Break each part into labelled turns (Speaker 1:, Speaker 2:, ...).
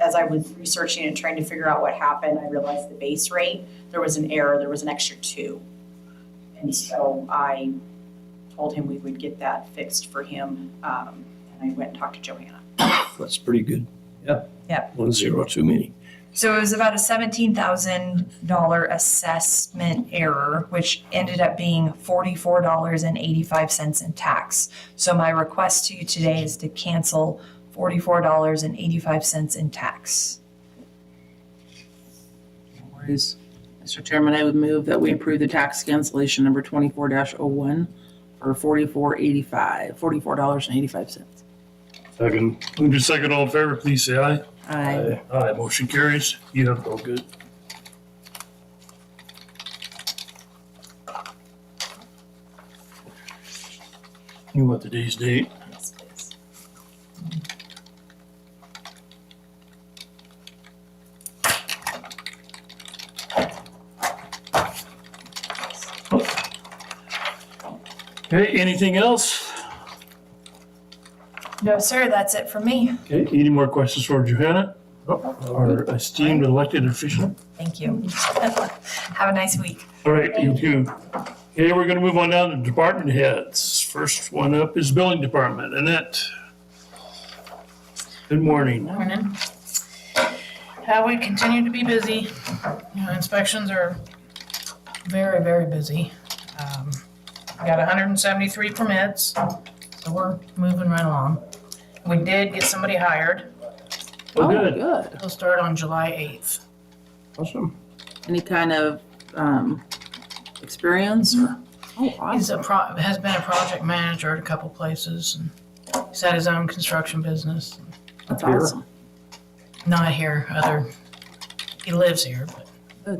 Speaker 1: as I was researching and trying to figure out what happened, I realized the base rate, there was an error, there was an extra two. And so I told him we would get that fixed for him, um, and I went and talked to Johanna.
Speaker 2: That's pretty good. Yeah.
Speaker 3: Yeah.
Speaker 2: One zero too many.
Speaker 3: So it was about a seventeen thousand dollar assessment error, which ended up being forty-four dollars and eighty-five cents in tax. So my request to you today is to cancel forty-four dollars and eighty-five cents in tax.
Speaker 4: No worries. Mr. Chairman, I would move that we approve the tax cancellation number twenty-four dash oh one for forty-four eighty-five, forty-four dollars and eighty-five cents.
Speaker 5: Second. Move to second, all in favor, please say aye.
Speaker 4: Aye.
Speaker 5: Aye, motion carries. You have all good. You want today's date?
Speaker 1: Yes, please.
Speaker 5: Okay, anything else?
Speaker 3: No, sir, that's it for me.
Speaker 5: Okay, any more questions for Johanna? Our esteemed elected official?
Speaker 3: Thank you. Have a nice week.
Speaker 5: All right, you too. Okay, we're gonna move on down to department heads. First one up is billing department. Annette. Good morning. Oh,
Speaker 6: Morning. Uh, we continue to be busy. You know, inspections are very, very busy. Um, We got hundred and seventy-three permits, so we're moving right along. We did get somebody hired.
Speaker 5: Well,
Speaker 4: Oh,
Speaker 5: good.
Speaker 4: good.
Speaker 6: They'll start on July eighth.
Speaker 5: Awesome.
Speaker 4: Any kind of, um, experience or? Oh,
Speaker 6: He's
Speaker 4: awesome.
Speaker 6: a pro, has been a project manager at a couple places and he's had his own construction business.
Speaker 4: That's awesome.
Speaker 6: Not here, other, he lives here, but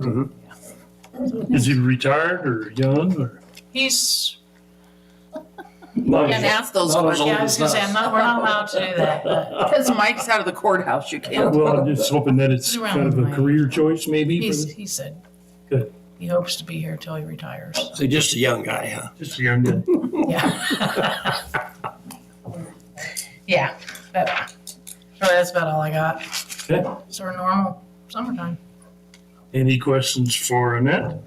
Speaker 5: Is he retired or young or?
Speaker 6: he's
Speaker 4: You Can't ask those questions.
Speaker 6: Yeah, I was gonna say, I'm not, we're not allowed to do that, but
Speaker 4: Because Mike's out of the courthouse, you can't.
Speaker 5: Well, I'm just hoping that it's
Speaker 6: He's around
Speaker 5: kind of a
Speaker 6: my-
Speaker 5: career choice maybe.
Speaker 6: he's,
Speaker 5: for-
Speaker 6: he said.
Speaker 5: Good.
Speaker 6: He hopes to be here till he retires.
Speaker 2: So just a young guy, huh?
Speaker 5: Just a young guy.
Speaker 6: Yeah. Yeah, but, really, that's about all I got.
Speaker 5: Okay.
Speaker 6: It's our normal summertime.
Speaker 5: Any questions for Annette?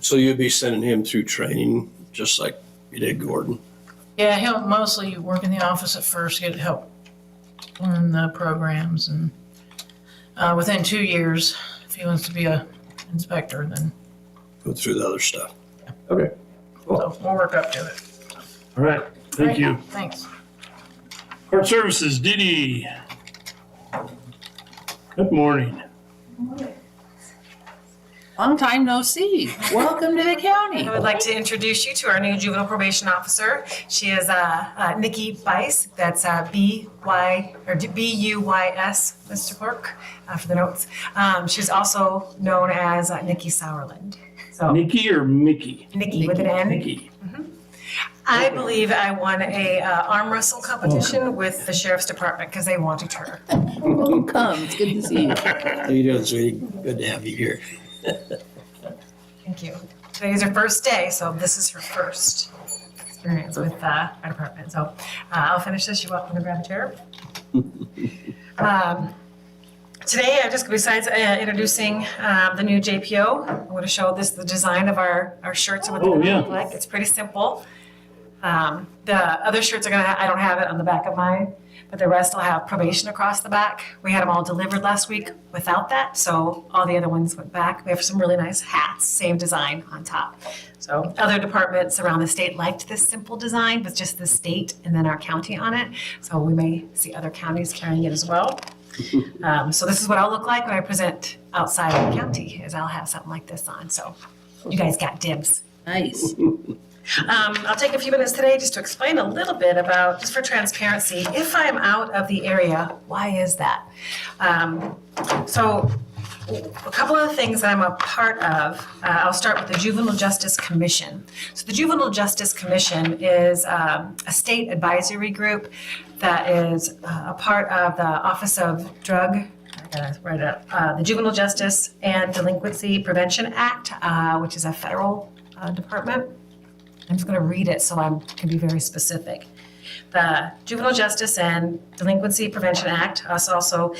Speaker 2: So you'll be sending him through training, just like you did Gordon.
Speaker 6: Yeah, he'll mostly work in the office at first, get help learn the programs and, uh, within two years, if he wants to be a inspector, then,
Speaker 2: Go through the other stuff.
Speaker 5: Okay.
Speaker 6: so we'll work up to it.
Speaker 5: All right, thank
Speaker 6: Great,
Speaker 5: you.
Speaker 6: Thanks.
Speaker 5: Court Services, Dee Dee. Good morning.
Speaker 4: Long time no see. Welcome to the county.
Speaker 7: I would like to introduce you to our new juvenile probation officer. She is uh, uh, Nikki Bice, that's uh, B-Y, or D- B-U-Y-S, Mr. Clerk, uh, for the notes. Um, She's also known as uh, Nikki Sauerland. So
Speaker 5: Nikki or Mickey?
Speaker 7: Nikki with an N.
Speaker 5: Nikki.
Speaker 7: I believe I won a uh, arm wrestle competition with the sheriff's department because they wanted her.
Speaker 4: Welcome. It's good to see you.
Speaker 2: How you doing, sweetie? Good to have you here.
Speaker 7: Thank you. Today's her first day, so this is her first experience with uh, our department. So uh, I'll finish this. You're welcome to grab a chair. Um, Today, I just, besides uh, introducing uh, the new JPO, I'm going to show this, the design of our, our shirts and what
Speaker 5: Oh,
Speaker 7: they
Speaker 5: yeah.
Speaker 7: look like. It's pretty simple. Um, The other shirts are going to, I don't have it on the back of mine, but the rest will have probation across the back. We had them all delivered last week without that, so all the other ones went back. We have some really nice hats, same design on top. So other departments around the state liked this simple design with just the state and then our county on it. So we may see other counties carrying it as well. Um, so this is what I'll look like when I present outside of the county, is I'll have something like this on. So you guys got dibs.
Speaker 4: Nice.
Speaker 7: Um, I'll take a few minutes today just to explain a little bit about, just for transparency, if I'm out of the area, why is that? Um, so a couple of the things that I'm a part of, uh, I'll start with the Juvenile Justice Commission. So the Juvenile Justice Commission is um, a state advisory group that is uh, a part of the Office of Drug, I gotta write it up, uh, the Juvenile Justice and Delinquency Prevention Act, uh, which is a federal uh, department. I'm just going to read it so I'm can be very specific. The Juvenile Justice and Delinquency Prevention Act, us also